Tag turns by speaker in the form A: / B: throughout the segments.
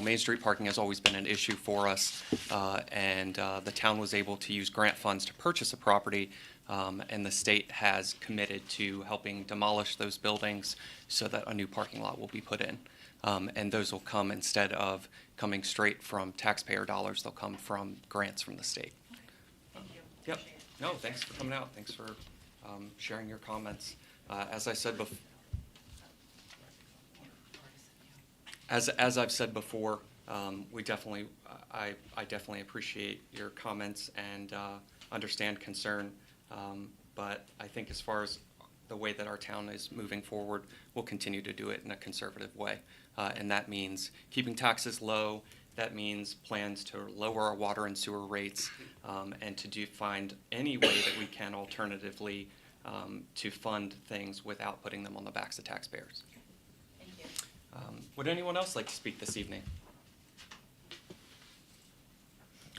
A: Main Street parking has always been an issue for us, uh, and uh, the town was able to use grant funds to purchase a property, um, and the state has committed to helping demolish those buildings so that a new parking lot will be put in. Um, And those will come instead of coming straight from taxpayer dollars, they'll come from grants from the state.
B: Thank you.
A: Yep.
B: Appreciate it.
A: No, thanks for coming out. Thanks for um, sharing your comments. Uh, As I said bef, as, as I've said before, um, we definitely, I, I definitely appreciate your comments and uh, understand concern. Um, But I think as far as the way that our town is moving forward, we'll continue to do it in a conservative way. Uh, And that means keeping taxes low, that means plans to lower our water and sewer rates, um, and to do, find any way that we can alternatively um, to fund things without putting them on the backs of taxpayers.
B: Thank you.
A: Um, Would anyone else like to speak this evening?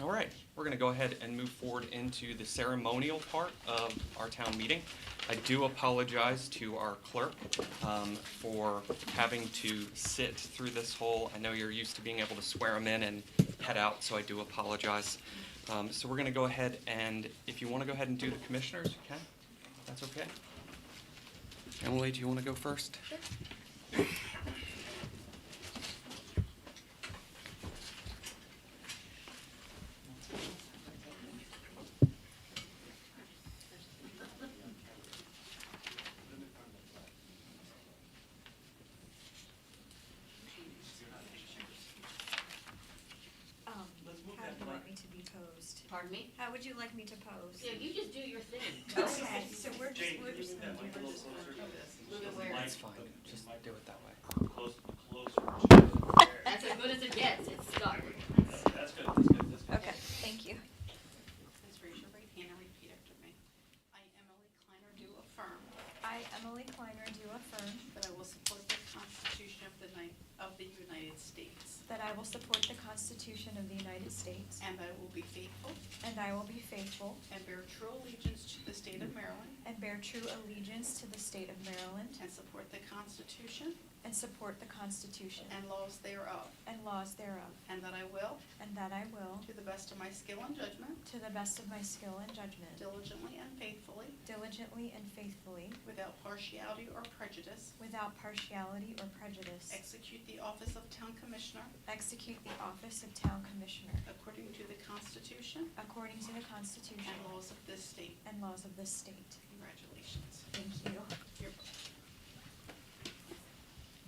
A: All right, we're going to go ahead and move forward into the ceremonial part of our town meeting. I do apologize to our clerk um, for having to sit through this whole, I know you're used to being able to swear them in and head out, so I do apologize. Um, So we're going to go ahead and, if you want to go ahead and do the commissioners, you can. That's okay. Emily, do you want to go first?
C: Um, how do you like me to be posed?
B: Pardon me?
C: How would you like me to pose?
B: Yeah, you just do your thing.
C: Okay, so we're just, we're just gonna do this.
B: Move it where-
A: That's fine, just do it that way.
D: Close, closer. to-
B: That's as good as it gets, it's stuck.
D: That's that's good, that's good, that's good.
C: Okay, thank you.
E: Please raise your right hand and repeat after me. I, Emily Kleiner, do affirm
C: I, Emily Kleiner, do affirm
E: that I will support the Constitution of the Ni- of the United States,
C: that I will support the Constitution of the United States,
E: and that I will be faithful
C: and I will be faithful
E: and bear true allegiance to the state of Maryland,
C: and bear true allegiance to the state of Maryland,
E: and support the Constitution
C: and support the Constitution
E: and laws thereof,
C: and laws thereof,
E: and that I will,
C: and that I will,
E: to the best of my skill and judgment,
C: to the best of my skill and judgment,
E: diligently and faithfully,
C: diligently and faithfully,
E: without partiality or prejudice,
C: without partiality or prejudice,
E: execute the office of Town Commissioner
C: execute the office of Town Commissioner
E: according to the Constitution
C: According to the Constitution
E: and laws of this state.
C: and laws of this state.
E: Congratulations.
C: Thank you.
E: Here.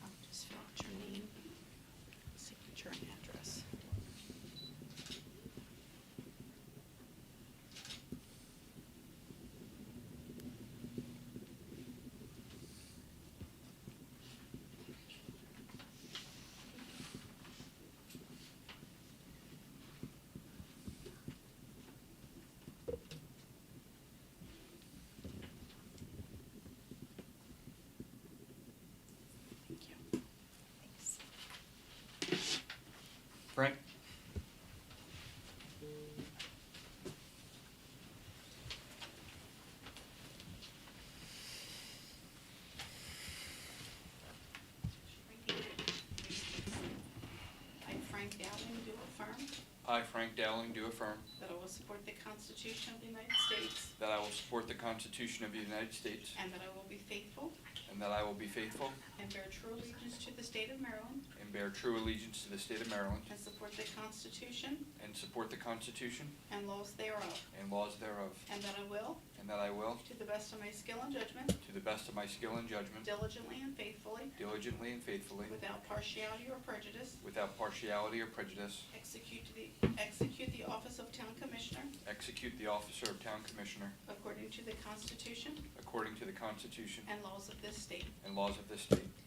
E: I'll just fill out your name, signature, and address. Thank you.
C: Thanks.
A: Frank?
E: I, Frank Dowling, do affirm
F: I, Frank Dowling, do affirm
E: that I will support the Constitution of the United States
F: that I will support the Constitution of the United States
E: and that I will be faithful
F: and that I will be faithful
E: and bear true allegiance to the state of Maryland
F: and bear true allegiance to the state of Maryland
E: and support the Constitution
F: and support the Constitution
E: and laws thereof,
F: and laws thereof,
E: and that I will,
F: and that I will,
E: to the best of my skill and judgment,
F: to the best of my skill and judgment,
E: diligently and faithfully,
F: diligently and faithfully,
E: without partiality or prejudice,
F: without partiality or prejudice,
E: Execute the, execute the office of Town Commissioner
F: execute the office of Town Commissioner
E: according to the Constitution
F: according to the Constitution
E: and laws of this state.
F: and laws of this state.